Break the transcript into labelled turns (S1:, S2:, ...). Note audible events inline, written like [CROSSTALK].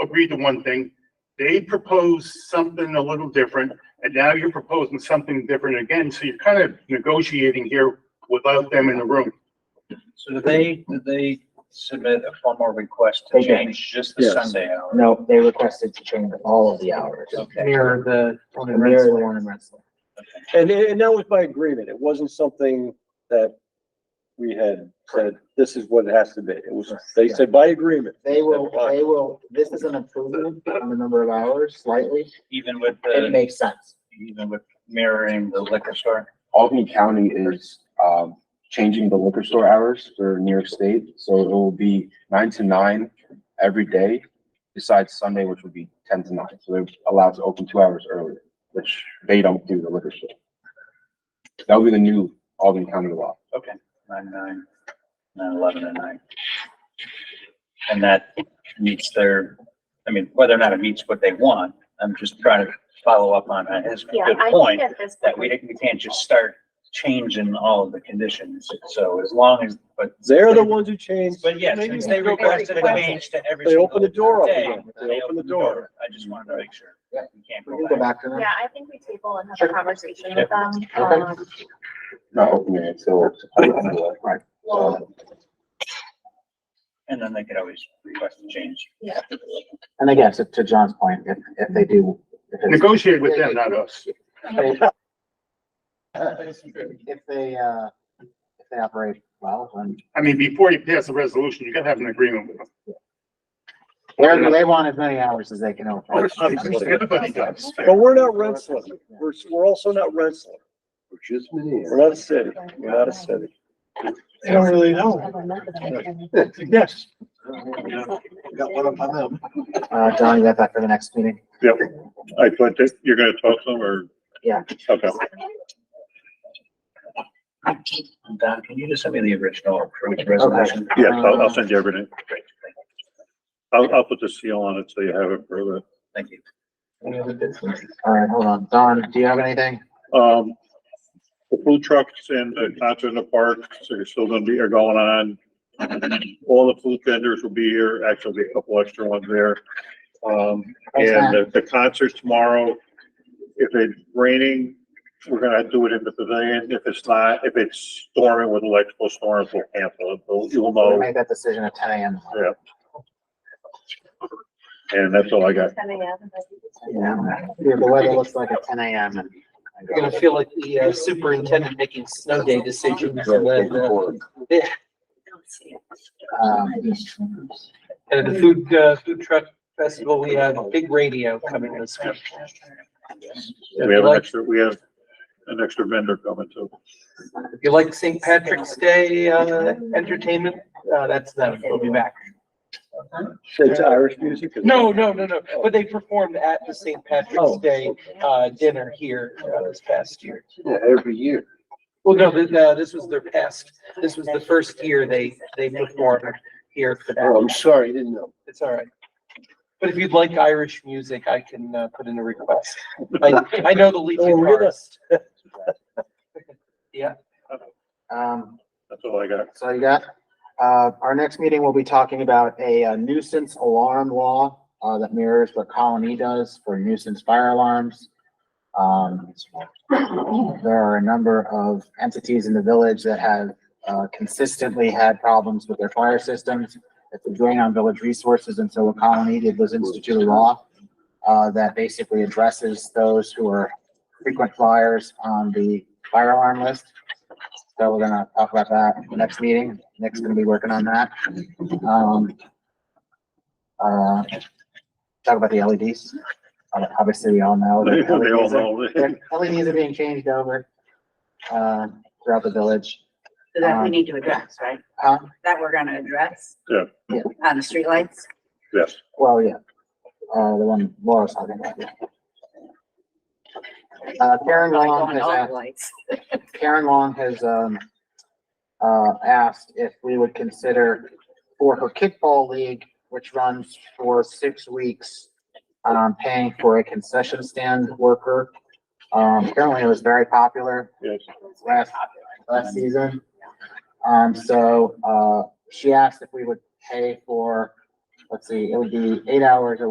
S1: agreed to one thing, they proposed something a little different, and now you're proposing something different again, so you're kind of negotiating here without them in the room.
S2: So did they, did they submit a formal request to
S3: They did.
S2: change just the
S4: Yes.
S2: Sunday hour?
S3: No, they requested to change all of the hours.
S2: Okay,
S5: Mirror the one in
S3: They're the
S5: Rensselaer.
S3: one in Rensselaer.
S4: And, and that was by agreement. It wasn't something that we had said, this is what it has to be. It was, they said by agreement.
S3: They will, they will, this is an improvement on the number of hours slightly.
S2: even with
S3: It
S2: the,
S3: makes sense.
S2: even with mirroring the liquor store?
S6: Albany County is, um, changing the liquor store hours for New York State, so it will be nine to nine every day, besides Sunday, which would be ten to nine, so they're allowed to open two hours earlier, which they don't do the liquor store. That'll be the new Albany County law.
S2: Okay, nine, nine, nine, eleven and nine. And that meets their, I mean, whether or not it meets what they want, I'm just trying to follow up on his
S7: Yeah,
S2: good
S7: I
S2: point.
S7: think at this
S2: That we,
S7: point,
S2: we can't just start changing all of the conditions. So as long as, but
S4: They're the ones who changed.
S2: But yes, since they requested a change to every.
S4: They opened the
S2: single
S4: door up
S2: day,
S4: again.
S2: They opened the door. up. I just wanted to make sure.
S3: Yeah.
S2: We can't
S3: We can
S2: go
S3: go
S2: back.
S3: back to them.
S7: yeah, I think we table and have a conversation with them.
S3: Okay.
S7: Um,
S6: Not opening it till. Right.
S3: Uh,
S7: Well,
S2: And then they could always request a change.
S7: Yeah.
S3: And again, to, to John's point, if, if they do. if it's-
S1: Negotiate with them, not us.
S3: If they, uh, if they operate well, then
S1: I mean, before you pass a resolution, you gotta have an agreement with them.
S3: they they want as many hours as they can open.
S1: Obviously, Everybody does.
S4: But we're not Rensselaer. We're, we're also not Rensselaer. We're not a city. We're not a city.
S5: They don't really know. Yes. Got one up on them.
S3: Uh, John, you got that for the next meeting?
S8: Yep, I put that, you're gonna talk to them or?
S3: Yeah.
S8: Okay.
S2: Don, can you just send me the original for which resolution?
S8: Yes, I'll, I'll send you everything. I'll, I'll put the seal on it so you have it for the.
S2: Thank you.
S3: All right, hold on. Don, do you have anything?
S8: Um, the food trucks and the concert in the parks are still gonna be, are going on. All the food vendors will be here, actually a couple extra ones there. Um, and the, the concert tomorrow, if it's raining, we're gonna do it in the pavilion. If it's not, if it's storming with electrical storms, we'll cancel it. We'll- You'll
S3: We'll
S8: know,
S3: Make that decision at ten AM.
S8: and that's all I got.
S7: Coming out and then-
S3: Yeah, yeah, the weather looks like at ten AM and.
S5: You're gonna feel like the uh, superintendent making snow day decisions and then, uh,
S3: Um,
S5: and the food, uh, food truck festival, we have a big radio coming this week.
S8: We have an
S5: Like-
S8: extra, we have an extra vendor coming too.
S5: If you like St. Patrick's Day, uh, entertainment, uh, that's them. We'll be back.
S4: It's Irish music.
S5: No, no, no, no. But they performed at the St. Patrick's
S4: Oh,
S5: Day, uh, dinner here uh, this past year.
S4: Every year.
S5: Well, no, th- uh, this was their past, this was the first year they, they performed here for that.
S4: oh, I'm sorry, didn't know.
S5: It's all right. But if you'd like Irish music, I can uh, put in a request. I, I know the lead
S4: Oh, really?
S5: guitarist.
S3: um,
S8: That's all I got.
S3: So you got, uh, our next meeting, we'll be talking about a uh, nuisance alarm law, uh, that mirrors what Colony does for nuisance fire alarms. Um, there are a number of entities in the village that have, uh, consistently had problems with their fire systems. It's a drain on village resources, and so what Colony did was institute a law, uh, that basically addresses those who are frequent flyers on the fire alarm list. So we're gonna talk about that next meeting. Nick's gonna be working on that. Um, uh, talk about the LEDs. Uh, Obviously, we all know.
S8: [LAUGHS] They
S3: that
S8: they all
S3: LEDs are-
S8: know.
S3: LEDs are being changed over, uh, throughout the village.
S9: So that we need to address, right?
S3: Huh?
S9: That we're gonna address?
S8: Yeah.
S3: Yeah.
S9: On the streetlights?
S8: Yes.
S3: Well, yeah. Uh, the one Laura's talking about. yeah. Uh, Karen
S9: Probably
S3: Long
S9: going
S3: has
S9: all
S3: asked.
S9: the lights.
S3: Karen Long has, um, uh, asked if we would consider for her kickball league, which runs for six weeks, um, paying for a concession stand worker. Um, apparently it was very popular
S8: Yes.
S3: last, last season. Um, so, uh, she asked if we would pay for, let's see, it would be eight hours a